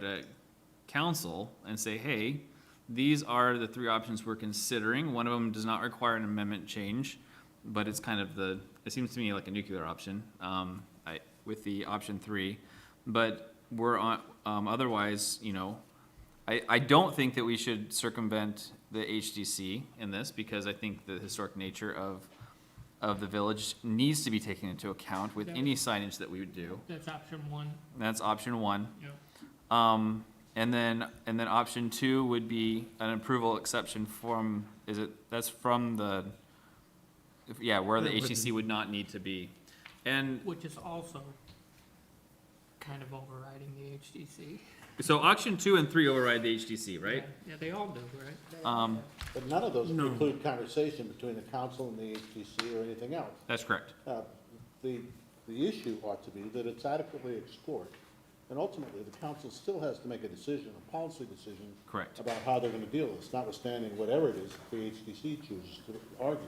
to council and say, hey, these are the three options we're considering. One of them does not require an amendment change, but it's kind of the, it seems to me like a nuclear option, um, I, with the option three. But we're on, um, otherwise, you know, I, I don't think that we should circumvent the HDC in this because I think the historic nature of, of the village needs to be taken into account with Yeah. any signage that we would do. That's option one, And that's option one. yep. Um, and then, and then option two would be an approval exception from, is it, that's from the, if- yeah, where the Yeah, with HTC would not need to be. And Which is also kind of overriding the HDC. so option two and three override the HTC, right? Yeah, they all do, right? Um, But none of those include conversation between the council and the HTC or anything else. that's correct. Uh, The, the issue ought to be that it's adequately explored, and ultimately, the council still has to make a decision, a policy decision. Correct. About how they're gonna deal with this, notwithstanding whatever it is the HTC chooses to argue.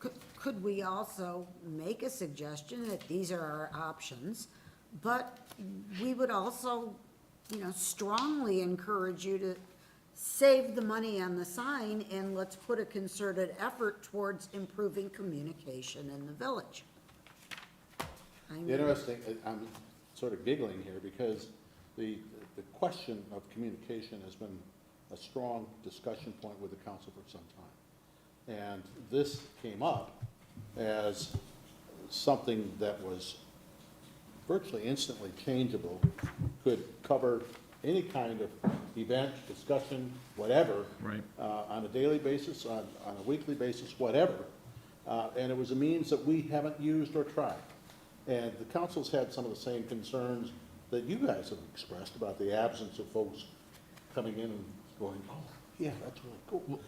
Could, could we also make a suggestion that these are our options? But we would also, you know, strongly encourage you to save the money on the sign and let's put a concerted effort towards improving communication in the village. I The mean, Interesting, I- I'm sort of giggling here, because the, the question of communication has been a strong discussion point with the council for some time. And this came up as something that was virtually instantly changeable, could cover any kind of event, discussion, whatever. Right. uh, on a daily basis, on, on a weekly basis, whatever. Uh, and it was a means that we haven't used or tried. And the council's had some of the same concerns that you guys have expressed about the absence of folks coming in and going, oh, yeah, that's really cool.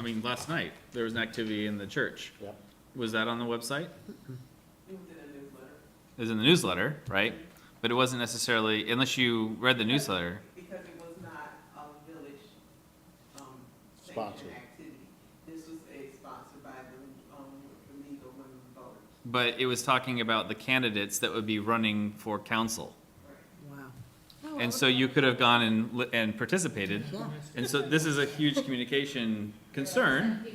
I mean, last night, there was an activity in the church. Yeah, Was that on the website? It was in the newsletter, right? But it wasn't necessarily, unless you read the newsletter. Because it was not a village, um, Sponsored. sanctioned activity. This was a sponsored by the, um, the League of Women Voters. But it was talking about the candidates that would be running for council. Wow. And so you could have gone and, li- and participated. Yeah. And so this is a huge communication concern.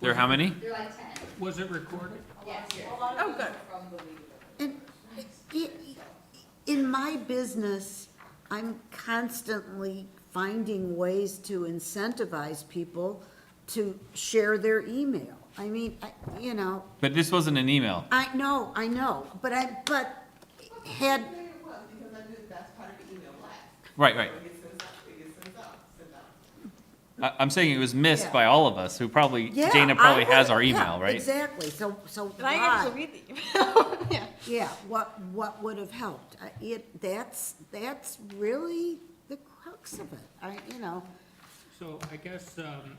There are how many? Was it recorded? Oh, good. And i- in my business, I'm constantly finding ways to incentivize people to share their email. I mean, I- you know, But this wasn't an email. I know, I know, but I, but had, Yeah, it was, because I did, that's part of the email blast. Right, right. It gets sent out, it gets sent out, sent out. I, I'm saying it was missed by all of us who probably, yeah. Dana probably I would- has our yeah, email, right? Exactly, so, so But I actually why? read the email. Yeah. Yeah, what, what would have helped? I- It, that's, that's really the crux of it, I, you know. So I guess, um,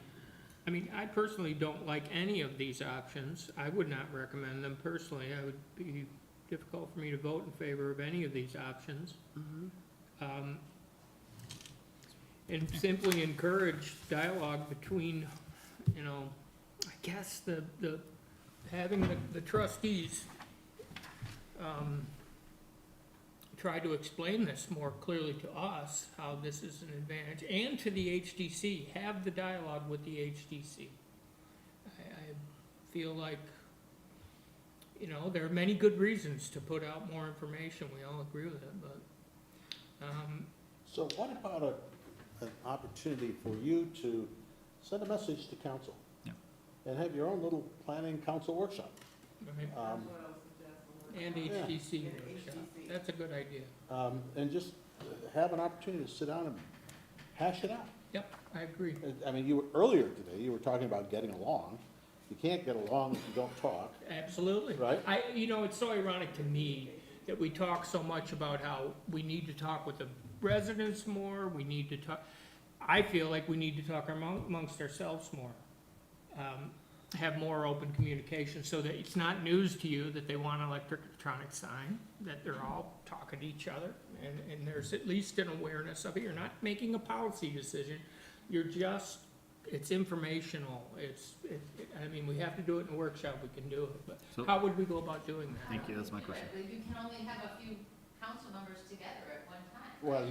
I mean, I personally don't like any of these options. I would not recommend them personally. I would be difficult for me to vote in favor of any of these options. Um, And simply encourage dialogue between, you know, I guess the, the, having the- the trustees, um, try to explain this more clearly to us, how this is an advantage, and to the HDC, have the dialogue with the HDC. I, I feel like, you know, there are many good reasons to put out more information, we all agree with it, but, um, so what about a, an opportunity for you to send a message to council? Yeah. And have your own little planning council workshop. I mean, Um, What else is that and for? HDC workshop, HDC. that's a good idea. um, and just have an opportunity to sit down and hash it out. Yep, I agree. I mean, you were, earlier today, you were talking about getting along. You can't get along if you don't talk. Absolutely. Right. I, you know, it's so ironic to me that we talk so much about how we need to talk with the residents more, we need to talk, I feel like we need to talk among- amongst ourselves more. Um, Have more open communication so that it's not news to you that they want an electric electronic sign, that they're all talking to each other. And, and there's at least an awareness of it. You're not making a policy decision. You're just it's informational, it's, it, it- I mean, we have to do it in a workshop, we can do it, So- but how would we go about doing that? Thank you, that's my question. You can only have a few council members together at one time. Well,